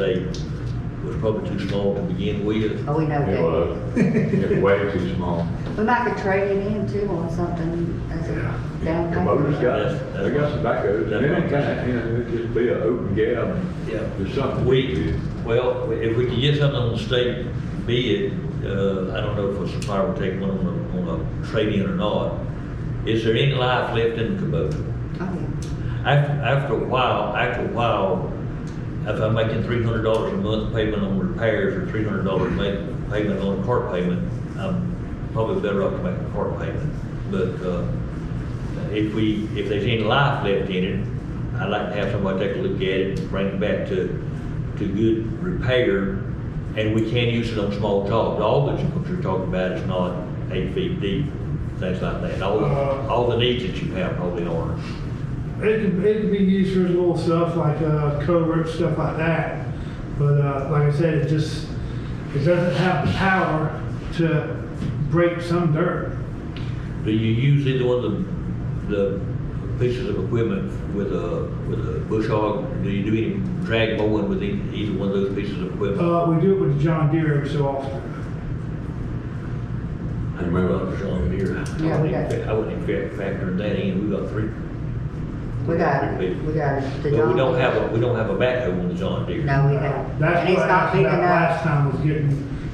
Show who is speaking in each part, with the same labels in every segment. Speaker 1: state was probably too small to begin with.
Speaker 2: Oh, we know
Speaker 3: It was,
Speaker 2: that.
Speaker 3: it was way too small.
Speaker 1: uh,
Speaker 2: We might could trade it in too on something as a down
Speaker 3: Kamuta's
Speaker 2: payment.
Speaker 3: got, they got some backhoes, and any time, you know, it'd just be an open gap.
Speaker 1: Yeah.
Speaker 3: There's something we
Speaker 1: We,
Speaker 3: could,
Speaker 1: well, if we could get something on the state bid, uh, I don't know if a supplier will take one on a, on a trade-in or not. Is there any life left in the Kubota?
Speaker 2: Oh,
Speaker 1: After, after a while, after a while, if I'm making three hundred dollars a month payment on repairs or three hundred dollars payment on a cart payment, I'm probably better off to make a cart payment. But, uh, if we, if there's any life left in it, I'd like to have somebody take a look at it, and bring it back to, to good repair. And we can use it on small jobs. All that you're talking about is not eight feet deep, things like that. All, all the needs that you have probably aren't.
Speaker 4: It could, it could be used for little stuff like uh, covert stuff like that. But uh, like I said, it just it doesn't have the power to break some dirt.
Speaker 1: Do you use either one of the, the pieces of equipment with a, with a bush hog? Do you do any drag mowing with e- either one of those pieces of equipment?
Speaker 4: Uh, we do it with the John Deere every so often.
Speaker 1: I remember I was on here. I
Speaker 2: Uh, Yeah, we
Speaker 1: wouldn't
Speaker 2: got-
Speaker 1: even- I wouldn't even factor that in, we got three.
Speaker 2: We got it, we got it.
Speaker 1: But
Speaker 2: The
Speaker 1: we
Speaker 2: John
Speaker 1: don't
Speaker 2: Deere.
Speaker 1: have, a we don't have a backhoe on the John Deere.
Speaker 2: No, we don't.
Speaker 4: Uh, That's
Speaker 2: Oh, And it's
Speaker 4: what I
Speaker 2: not
Speaker 4: asked
Speaker 2: big
Speaker 4: about
Speaker 2: enough.
Speaker 4: last time was getting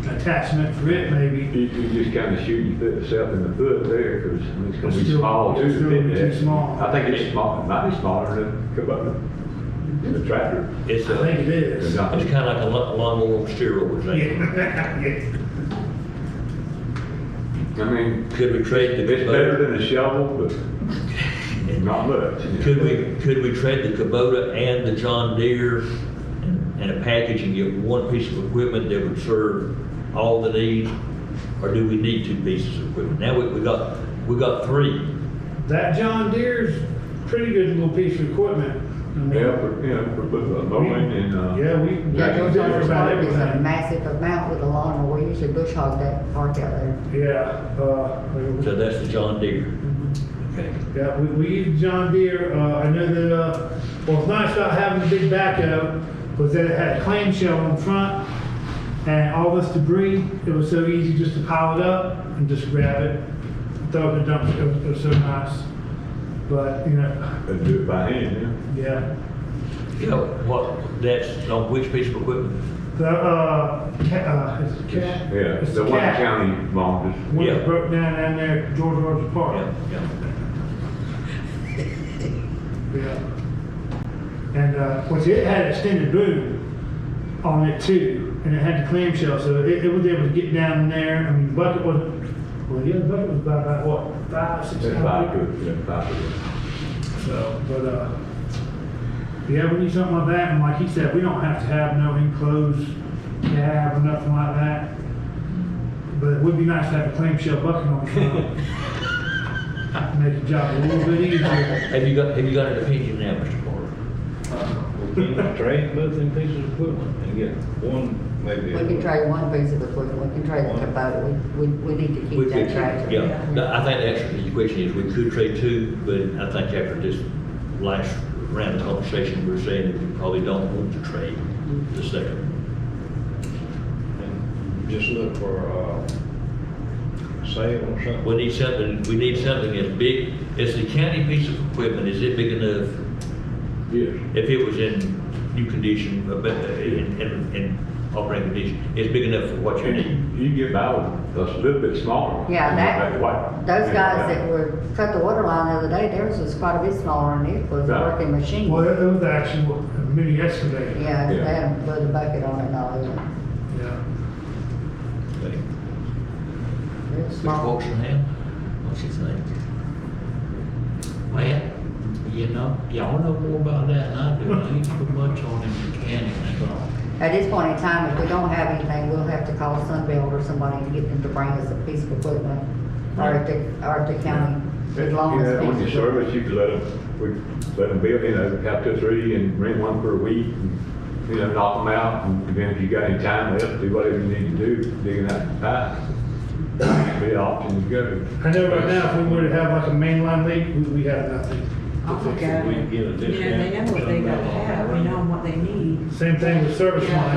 Speaker 4: an attachment for it maybe.
Speaker 3: you, you just kind of shoot yourself in the foot there, because it's gonna
Speaker 4: It's
Speaker 3: be
Speaker 4: still-
Speaker 3: small too.
Speaker 4: it's still
Speaker 3: isn't it?
Speaker 4: too small.
Speaker 3: I think it's small, might be smaller than Kubota, the tractor.
Speaker 1: It's
Speaker 4: I
Speaker 1: a,
Speaker 4: think it
Speaker 3: It's
Speaker 4: is.
Speaker 3: not-
Speaker 1: it's kind of like a lawn- lawnmower on steroids, ain't it?
Speaker 4: Yeah. Yeah.
Speaker 3: I mean,
Speaker 1: Could we trade the
Speaker 3: it's better
Speaker 1: Kubota?
Speaker 3: than a shovel, but not much.
Speaker 1: Could we, could we trade the Kubota and the John Deere in a package and get one piece of equipment that would serve all the needs? Or do we need two pieces of equipment? Now, we, we got, we got three.
Speaker 4: That John Deere's pretty good little piece of equipment. I mean,
Speaker 3: Yeah, for, you know, for bo- uh, mowing and, uh.
Speaker 4: Yeah, we.
Speaker 2: Yeah,
Speaker 4: we
Speaker 2: those
Speaker 4: do
Speaker 2: are
Speaker 4: about
Speaker 2: started with a
Speaker 4: everything.
Speaker 2: massive amount with a lawnmower. We usually bush hog that part out there.
Speaker 4: Yeah, uh,
Speaker 1: So that's the John Deere. Okay.
Speaker 4: Yeah, we, we use John Deere, uh, I know that, uh, what's nice about having the big backhoe was that it had a clamshell in front and all this debris, it was so easy just to pile it up and just grab it, throw it in the dumpster, it was, it was so nice. But, you know,
Speaker 3: And do it by hand,
Speaker 4: yeah,
Speaker 1: You know, what, that's on which piece of equipment?
Speaker 4: the, uh, cat, uh, it's a
Speaker 3: yeah.
Speaker 4: cat.
Speaker 3: Yeah,
Speaker 4: It's
Speaker 3: the
Speaker 4: a
Speaker 3: one
Speaker 4: cat.
Speaker 3: county lawn is
Speaker 4: One
Speaker 1: Yeah.
Speaker 4: that broke down down there at George Rogers
Speaker 1: Yeah,
Speaker 4: Park.
Speaker 1: yeah.
Speaker 4: Yeah. And, uh, which it had extended boom on it too, and it had the clamshell, so it, it was able to get down in there. I mean, the bucket was, well, yeah, the bucket was about, about what, five, six
Speaker 3: It's five
Speaker 4: pounds?
Speaker 3: foot, yeah, five foot.
Speaker 4: So, but, uh, yeah, we need something like that, and like he said, we don't have to have no enclosed cab or nothing like that. But it would be nice to have a clamshell bucket on the front. Make the job a little bit easier.
Speaker 1: Have you got, have you got an opinion now, Mr. Carter?
Speaker 5: We can trade both them pieces of equipment and get one maybe.
Speaker 2: We can trade one piece of equipment, we can trade the Kubota, we, we, we need to
Speaker 1: We
Speaker 2: keep that
Speaker 1: could-
Speaker 2: tractor.
Speaker 1: Yeah, No, I think the answer to your question is we could trade two, but I think after this last round of conversation, we're saying that we probably don't want to trade the second.
Speaker 5: And Just look for, uh, sale or something.
Speaker 1: We need something, we need something as big, as the county piece of equipment, is it big enough?
Speaker 3: Yes,
Speaker 1: If it was in new condition, uh, but uh, in, in, in operating condition, it's big enough for what you need.
Speaker 3: and you can get by with a little bit smaller.
Speaker 2: Yeah,
Speaker 3: than
Speaker 2: that,
Speaker 3: white.
Speaker 2: those guys
Speaker 3: Yeah.
Speaker 2: that were, cut the water line the other day, theirs was quite a bit smaller than it was a
Speaker 3: Right.
Speaker 2: working machine.
Speaker 4: Well, it it was actually a mini excavator.
Speaker 2: Yeah, they
Speaker 3: Yeah.
Speaker 2: had to put a bucket on it and all that.
Speaker 4: Yeah.
Speaker 1: Okay.
Speaker 2: Real
Speaker 1: Mr.
Speaker 2: small.
Speaker 1: Foxenham, what's his name?
Speaker 6: Well, you know, y'all know more about that than I do. I ain't put much on them mechanics.
Speaker 2: At this point in time, if we don't have anything, we'll have to call Sunbelt or somebody to get them to bring us a piece of equipment. Or at the, or at the county, as long
Speaker 3: You
Speaker 2: as.
Speaker 3: know, When you
Speaker 2: things-
Speaker 3: service, you could let them, we let them build, you know, have two, or three and rent one for a week. and You know, knock them out and then if you got any time left, do whatever you need to do, digging out the pipe. Be an option to go.
Speaker 4: I know right now, if we were to have like a mainline leak, we, we have nothing.
Speaker 7: Oh, my
Speaker 5: We
Speaker 7: God.
Speaker 5: can get a
Speaker 7: You
Speaker 5: discount.
Speaker 7: know, they know what they gotta have, they know what they need.
Speaker 4: Same thing with service
Speaker 7: Yeah.
Speaker 4: line.